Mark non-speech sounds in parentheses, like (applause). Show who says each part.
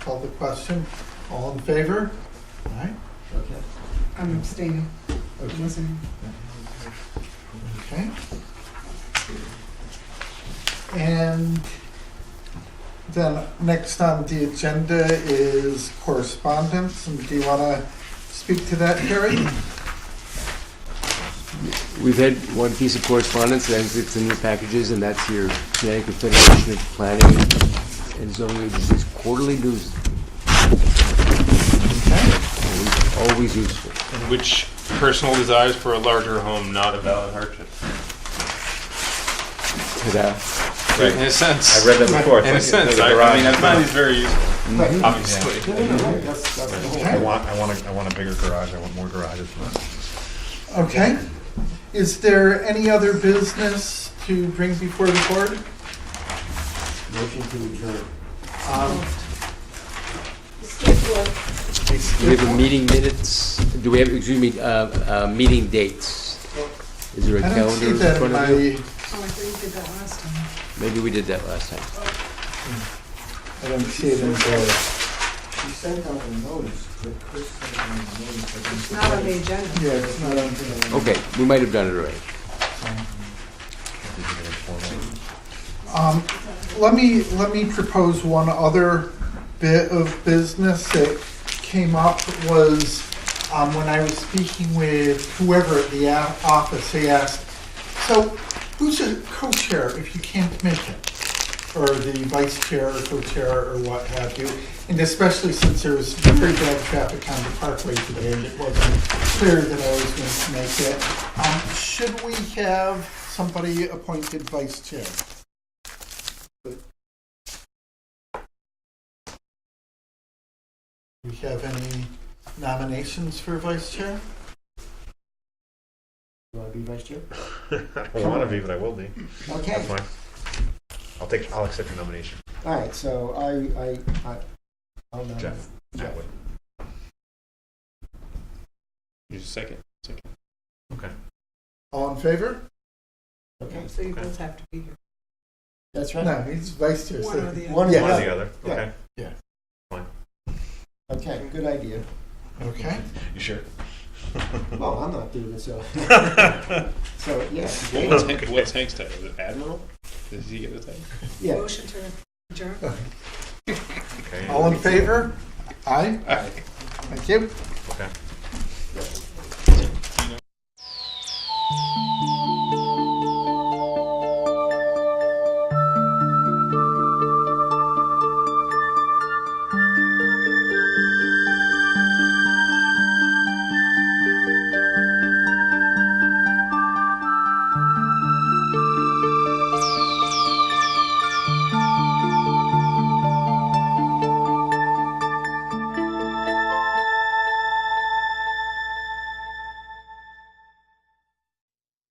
Speaker 1: call the question. All in favor? All right.
Speaker 2: Okay.
Speaker 3: I'm abstaining. I'm listening.
Speaker 1: Okay. And then next on the agenda is correspondence, and do you want to speak to that, Gary?
Speaker 4: We've had one piece of correspondence, and it's in your packages, and that's your Connecticut Federation of Planning and Zoning Agencies quarterly news,
Speaker 1: Okay.
Speaker 4: always- always useful.
Speaker 5: in which personal desires for a larger home not a valid hardship.
Speaker 4: Ta-da.
Speaker 5: Right, in a sense.
Speaker 2: I read that before.
Speaker 5: in a sense, I, I mean, I find these very useful, obviously.
Speaker 2: I want, I want, a, I want a bigger garage. I want more garages.
Speaker 1: Okay. Is there any other business to bring before the board?
Speaker 6: Motion to adjourn.
Speaker 1: Um,
Speaker 3: oh,
Speaker 4: Do we have a meeting minutes, do we have, excuse me, uh, uh, meeting dates? Is there a
Speaker 1: I don't see
Speaker 4: calendar in
Speaker 1: that in
Speaker 4: front of you?
Speaker 1: my,
Speaker 3: Oh, I thought you did that last time.
Speaker 4: Maybe we did that last time.
Speaker 1: I don't see it in the.
Speaker 6: She sent out a notice, but Chris sent out a notice. I think-
Speaker 3: It's not on the agenda.
Speaker 1: Yeah, it's not on.
Speaker 4: Okay, we might have done it already.
Speaker 1: Um, let me, let me propose one other bit of business that came up was, um, when I was speaking with whoever at the o- office, they asked, so who's a co-chair if you can't make it? Or the vice chair or co-chair or what have you? And especially since there was very bad traffic on the parkway today and it wasn't clear that I was going to make it. Um, should we have somebody appointed vice chair? Do we have any nominations for vice chair?
Speaker 6: Do I be vice chair?
Speaker 2: I want to be, but I will be. That's
Speaker 6: Okay,
Speaker 2: fine. I'll take. I'll accept your nomination,
Speaker 6: all right, so I, I, I, I'll nominate.
Speaker 2: Jeff. That way.
Speaker 5: You second.
Speaker 1: All in favor?
Speaker 6: Okay,
Speaker 3: So you both have to be here.
Speaker 6: that's right.
Speaker 1: No, he's vice chair.
Speaker 3: One or
Speaker 1: so-
Speaker 3: the
Speaker 6: One
Speaker 3: other.
Speaker 6: of
Speaker 2: One or the
Speaker 6: the,
Speaker 2: other.
Speaker 6: Yeah.
Speaker 2: Okay.
Speaker 6: okay, good idea.
Speaker 1: Okay.
Speaker 2: You sure?
Speaker 6: Well, I'm not doing it,
Speaker 2: (laughs)
Speaker 6: so, so, yeah,
Speaker 5: What's Hank- What's Hank's title? Is it Admiral? Does he get the title?
Speaker 6: yeah.
Speaker 3: Motion to adjourn.
Speaker 2: okay.
Speaker 1: All in favor? Aye.
Speaker 5: Aye.
Speaker 1: Thank you.
Speaker 2: Okay.